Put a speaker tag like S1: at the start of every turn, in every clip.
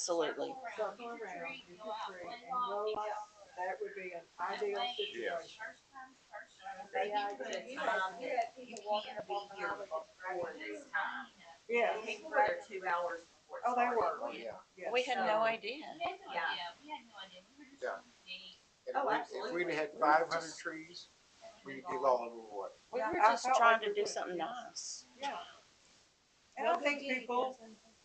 S1: absolutely.
S2: So come around, you can create and go like, that would be an ideal situation.
S3: They
S2: Yeah,
S3: put a
S2: you
S3: time
S2: had-
S3: that you can't be here before this time.
S2: Yes,
S3: People were there two hours before. it
S2: Oh, they
S3: started.
S2: were.
S4: Oh, yeah.
S2: yes.
S1: We had no
S3: So-
S1: idea.
S5: We had no
S3: Yeah.
S5: idea, we had no idea, we were just
S4: Yeah.
S5: on the date.
S4: And
S3: Oh,
S4: if we- If
S3: absolutely.
S4: we'd had five hundred trees, we'd be all over the water.
S1: We
S3: Yeah,
S1: were
S2: I
S1: just
S2: felt
S1: trying to
S2: like we
S1: do
S2: were-
S1: something
S2: yes.
S1: nice.
S2: Yeah. And I think people,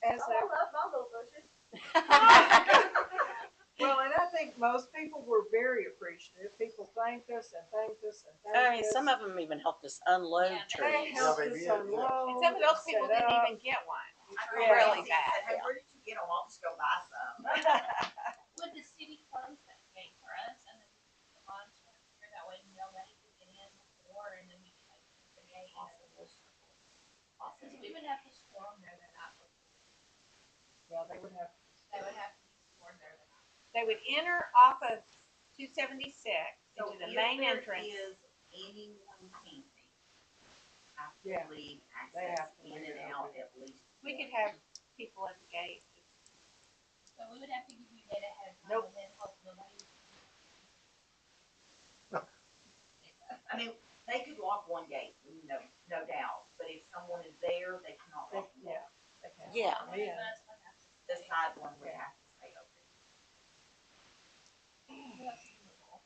S2: as
S3: Oh,
S2: a
S3: I love bumble bushes.
S2: Well, and I think most people were very appreciative. People thanked us and thanked us and
S1: I
S2: thanked
S1: mean,
S2: us.
S1: some of them even helped us unload
S5: Yeah, they
S2: They
S1: trees.
S2: helped
S4: Yeah,
S2: us
S4: they did, yeah.
S2: unload.
S6: Some of those
S2: and
S6: people
S2: set
S6: didn't
S2: up.
S6: even get one.
S3: I
S2: Yeah.
S3: remember
S6: Really
S3: Nancy said, Hey,
S6: bad.
S3: where did you get them? I'll just go buy some.
S5: Would the city close that gate for us and then the lawn chair here, that way nobody could get in the door and then we could like keep the gate. Since we would have to storm there the night before,
S2: Yeah, they would have.
S5: they would have to be stormed there the night.
S6: They would enter off of two seventy-six
S3: So
S6: into
S3: if
S6: the main
S3: there
S6: entrance.
S3: Is anyone camping? I
S2: Yeah,
S3: believe
S2: they
S3: access
S2: have to leave
S3: in and
S2: it
S3: out
S2: open.
S3: at least.
S6: We
S3: once.
S6: could have people at the gate.
S5: So we would have to give you that ahead of time
S2: Nope.
S5: and then hope nobody.
S3: I mean, they could lock one gate, no, no doubt, but if someone is there, they cannot lock them
S2: Yeah.
S3: all. They cannot.
S1: Yeah.
S6: Oh,
S5: One of
S2: Yeah.
S5: us would have to
S3: The
S5: stay.
S3: side one would have to stay open.
S5: Who else is in the hall?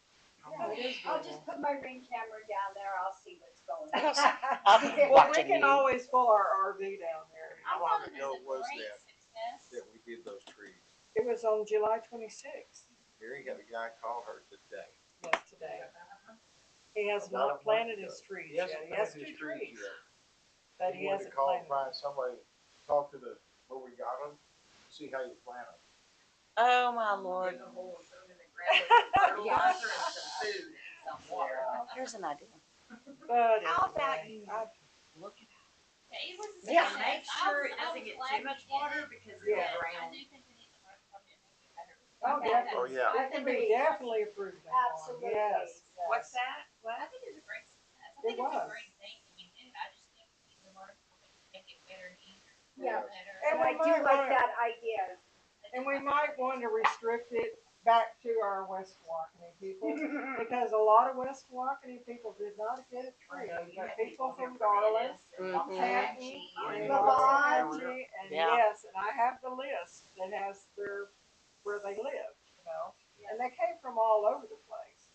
S2: Oh, it is
S7: I'll
S2: doable.
S7: just put my ring camera down there, I'll see what's going on.
S1: I'll be
S2: Well, we
S1: watching
S2: can
S1: you.
S2: always pull our RV down there.
S4: How
S5: I
S4: long
S5: thought it
S4: ago
S5: a
S4: was
S5: great
S4: that?
S5: success.
S4: That we did those trees.
S2: It was on July twenty-sixth,
S4: Mary had a guy call her today.
S2: yes, today. He has
S4: About a
S2: not
S4: month
S2: planted
S4: ago.
S2: his trees
S4: He
S2: yet.
S4: hasn't
S2: He has
S4: planted
S2: two
S4: his trees
S2: trees,
S4: yet.
S2: but
S4: He
S2: he
S4: wanted to
S2: hasn't
S4: call
S2: planted.
S4: and find somebody, talk to the, where we got them, see how you plant them.
S1: Oh, my lord.
S3: Dig a hole, put 'em in the ground, with some fertilizer and some food and some water.
S1: Here's an idea.
S2: But
S6: How about
S2: anyway,
S6: you-
S2: I-
S3: Look at
S5: Yeah, it was. a
S1: Yeah.
S3: And
S5: success.
S3: make
S5: I
S3: sure
S5: was-
S3: it
S5: I
S3: doesn't
S5: was
S3: get
S5: glad
S3: too
S5: we
S3: much
S5: did
S3: water
S5: it.
S3: because
S2: Yeah.
S3: it's
S5: Yes, I
S3: ground.
S5: do think we need to learn from it and make it better.
S2: Oh,
S7: Okay.
S2: definitely.
S4: Oh, yeah.
S7: I
S2: It
S7: can
S2: can be
S7: be,
S2: definitely improved upon,
S7: absolutely.
S2: yes.
S6: What's that? What?
S5: I think it was a great success. I
S2: It
S5: think it's
S2: was.
S5: a great thing that we did. I just think we need to learn from it, and make it better and easier.
S7: Yeah.
S5: Better.
S7: And
S2: And
S7: I
S2: we might
S7: do like
S2: wanna-
S7: that idea.
S2: And we might want to restrict it back to our West Walkeny people, because a lot of West Walkeny people did not get a
S3: I
S2: tree,
S3: know you
S2: but
S3: had people
S2: people
S3: here
S2: from
S3: for
S2: Garland,
S3: minutes and all
S1: Mhm.
S3: that.
S2: Patton,
S3: She-
S2: and
S4: Yeah.
S2: Belonte, and
S1: Yeah.
S2: yes, and I have the list that has their, where they live, you know? And they came from all over the place.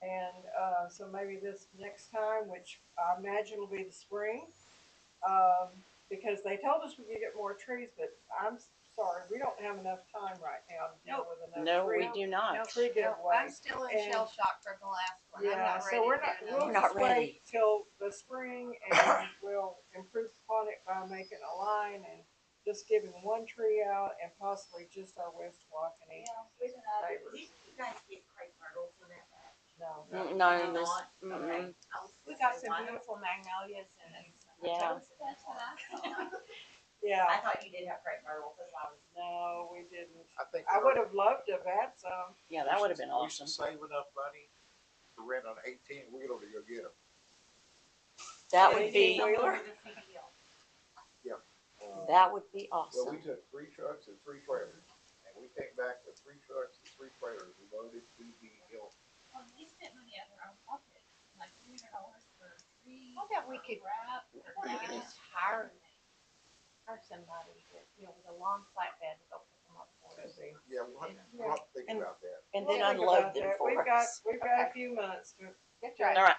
S2: And, uh, so maybe this next time, which I imagine will be the spring, um, because they told us we could get more trees, but I'm s- sorry, we don't have enough time right now to deal with enough
S1: No,
S2: trees.
S1: we do not.
S2: Tree
S6: I'm
S2: giveaway.
S6: still in
S2: And-
S6: shell shock for the last one. I'm
S2: Yeah,
S6: not
S2: so we're not,
S6: ready to do
S2: we'll
S1: We're
S6: another.
S1: not
S2: just wait
S1: ready.
S2: till the spring and we'll improve upon it by making a line and just giving one tree out and possibly just our West Walkeny.
S3: Did you guys get crepe myrtles in that bag?
S2: No,
S1: Mm,
S3: You're
S1: No, this,
S3: not?
S1: mm-mm.
S3: I was
S6: We
S3: gonna
S6: got
S3: say,
S6: some
S3: why not?
S6: beautiful magnolias and.
S1: Yeah.
S5: That's what I thought.
S2: yeah,
S3: I thought you did have crepe myrtles, that's why I was.
S2: no, we didn't.
S4: I think.
S2: I
S4: we're-
S2: would have loved to have had some.
S1: yeah, that would have been
S4: we
S1: awesome.
S4: should Save enough money to rent an eighteen wheeler to go get them.
S1: That
S2: Yeah,
S1: would
S2: you
S1: be,
S2: know-
S3: Somewhere with a CDL.
S1: that would be
S4: Well, we
S1: awesome.
S4: took three trucks and three trailers, and we came back with three trucks and three trailers loaded to the hill.
S5: Well, we spent money out of our own pocket, like three hundred dollars for three.
S6: How about we could-
S5: Wrap.
S6: We could just hire, hire somebody, that, you know, with a long flatbed to go pick them up for us.
S4: Yeah, we'll have to-
S2: Yeah.
S4: we'll have to think
S1: And-
S4: about that.
S1: And
S2: We'll
S1: then
S2: think
S1: unload
S2: about
S1: them
S2: that. We've
S1: for
S2: got,
S1: us.
S2: we've got a few months to,
S6: That's
S1: All
S6: right.
S1: right.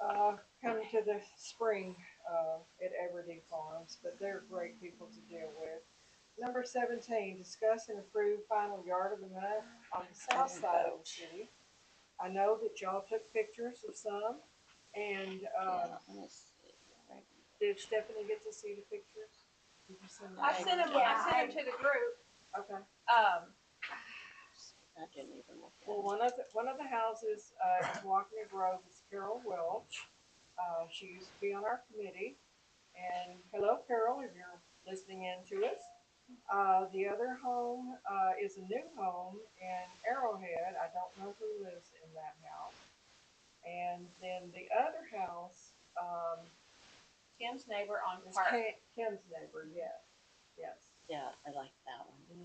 S2: uh, come to the spring, uh, at Everdeen Farms, but they're great people to deal with. Number seventeen, discuss and approve final yard of the month on the south side of the city. I know that y'all took pictures of some, and, um,
S1: Yeah, let me see. Right.
S2: did Stephanie get to see the pictures? Did you send them?
S6: I sent them, I sent them to the group,
S2: Okay,
S6: um,
S1: I didn't even look at
S2: well,
S1: it.
S2: one of the, one of the houses, uh, is Walkner Grove, is Carol Welch. Uh, she used to be on our committee, and hello Carol, if you're listening in to us. Uh, the other home, uh, is a new home in Arrowhead, I don't know who lives in that house. And then the other house, um,
S6: Tim's neighbor on
S2: is
S6: Park.
S2: Kim- Kim's neighbor, yes, yes.
S1: Yeah, I like that one.